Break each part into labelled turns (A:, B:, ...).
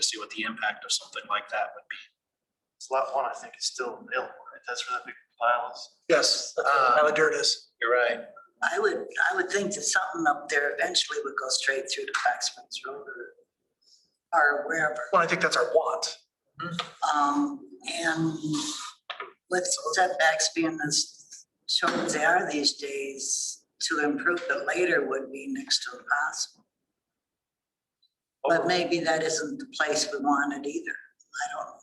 A: to see what the impact of something like that would be.
B: It's lot one, I think, is still ill, right? That's where that big pile is.
A: Yes.
B: Uh,
C: How dirt is.
A: You're right.
D: I would, I would think that something up there eventually would go straight through to Black Springs Road or, or wherever.
C: Well, I think that's our want.
D: Um, and with setbacks being as short as they are these days, to improve it later would be next to impossible.
B: Oh,
A: Oh.
D: But maybe that isn't the place we wanted either. I don't know.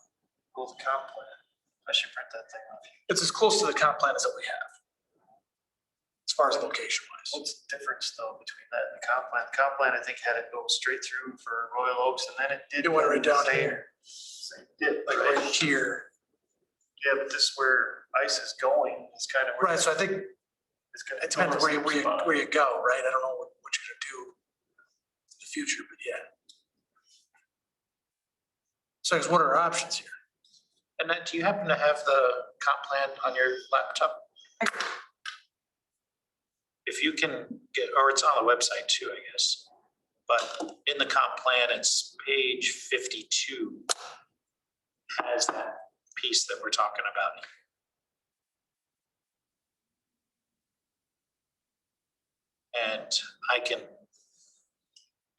B: Gold comp plan. I should print that thing off.
C: It's as close to the comp plan as that we have. As far as location wise.
B: What's the difference though between that and the comp plan? Comp plan, I think, had it go straight through for Royal Oaks and then it did.
C: It went right down
B: stay-
C: here.
B: stay dip,
C: Like
B: right?
C: right here.
B: Yeah, but this is where ice is going, it's kind of. where
C: Right, so I think
B: it's gonna
C: it depends
B: go
C: where you, where you,
B: spot.
C: where you go, right? I don't know what what you're gonna do in the future, but yeah. So it's what are our options here?
A: Annette, do you happen to have the comp plan on your laptop? If you can get, or it's on the website too, I guess. But in the comp plan, it's page fifty-two. Has that piece that we're talking about. And I can,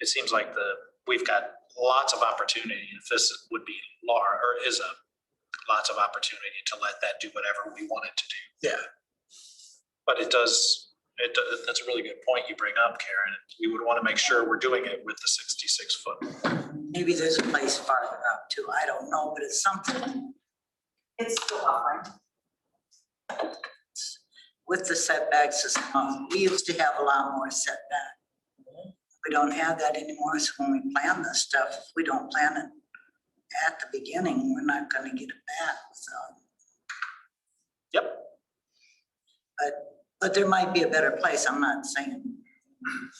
A: it seems like the, we've got lots of opportunity. If this would be Laura, or is a lots of opportunity to let that do whatever we want it to do.
C: Yeah.
A: But it does, it, do- that's a really good point you bring up, Karen. We would want to make sure we're doing it with the sixty-six foot.
D: Maybe there's a place farther up too. I don't know, but it's something. It's still offering. With the setbacks, it's, um, we used to have a lot more setback. We don't have that anymore, so when we plan this stuff, if we don't plan it at the beginning, we're not gonna get it back, so.
A: Yep.
D: But, but there might be a better place, I'm not saying.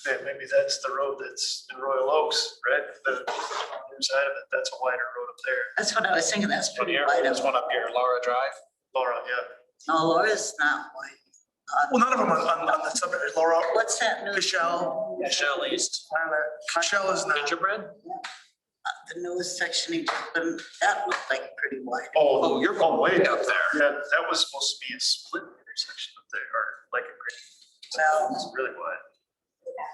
B: Yeah, maybe that's the road that's in Royal Oaks, right? The other side of it, that's a wider road up there.
D: That's what I was thinking, that's
A: But
D: pretty
A: here,
D: wide.
A: there's one up here, Laura Drive.
B: Laura, yeah.
D: No, Laura's not wide. Uh,
C: Well, none of them are on, on the subject. Laura,
D: What's that new?
C: Michelle.
A: Michelle East.
C: Shell is not.
A: Gingerbread?
D: Uh, the newest section, he just put, that looked like pretty wide.
B: Oh,
A: you're going
B: way up there. Yeah, that was supposed to be a split intersection up there, or like a great.
D: Well-
B: It's really wide.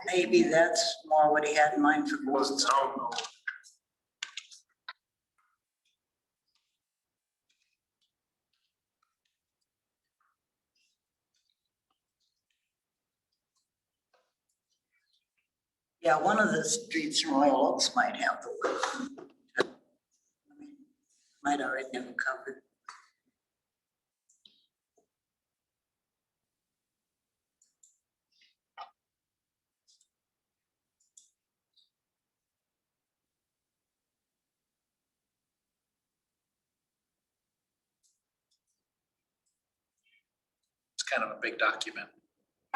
D: Maybe that's more what he had in mind for.
B: It wasn't town though.
D: Yeah, one of the streets in Royal Oaks might have the. word. Might already have it covered.
A: It's kind of a big document.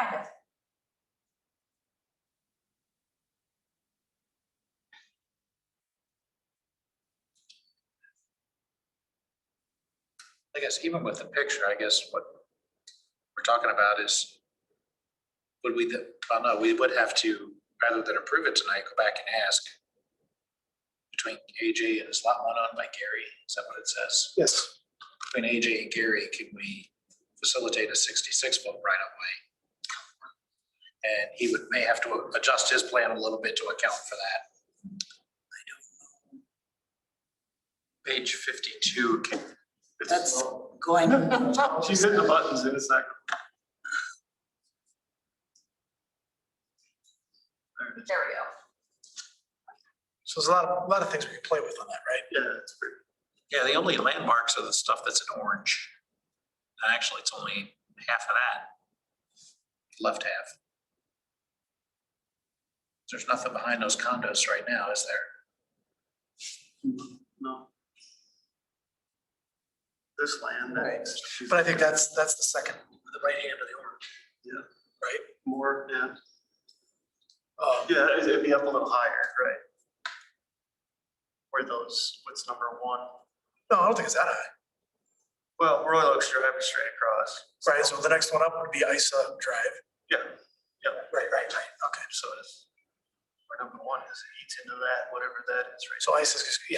E: Kind of.
A: I guess even with the picture, I guess what we're talking about is would we, th- well, no, we would have to, rather than approve it tonight, go back and ask between AJ and is lot one on by Gary, is that what it says?
C: Yes.
A: Between AJ and Gary, can we facilitate a sixty-six foot right away? And he would, may have to adjust his plan a little bit to account for that. Page fifty-two, can
B: It's
D: That's
B: low.
D: going,
B: She's hitting the buttons and it's not. There it is.
E: There we go.
C: So there's a lot, of a lot of things we can play with on that, right?
B: Yeah, it's pretty.
A: Yeah, the only landmarks are the stuff that's in orange. And Actually, it's only half of that. Left half. There's nothing behind those condos right now, is there?
B: No. This land that's
C: But I think that's, that's the second, the right hand of the orange.
B: Yeah.
C: Right?
B: more, yeah,
C: Um,
B: yeah, it'd- it'd be up a little higher, right? Where those, what's number one?
C: No, I don't think it's that high.
B: Well, Royal Oaks Drive is straight across.
C: Right, so the next one up would be Isa Drive.
B: Yeah,
C: Right, right, right, okay.
B: so it's, or number one is, it eats into that, whatever that is, right?
C: So Isa's, yeah,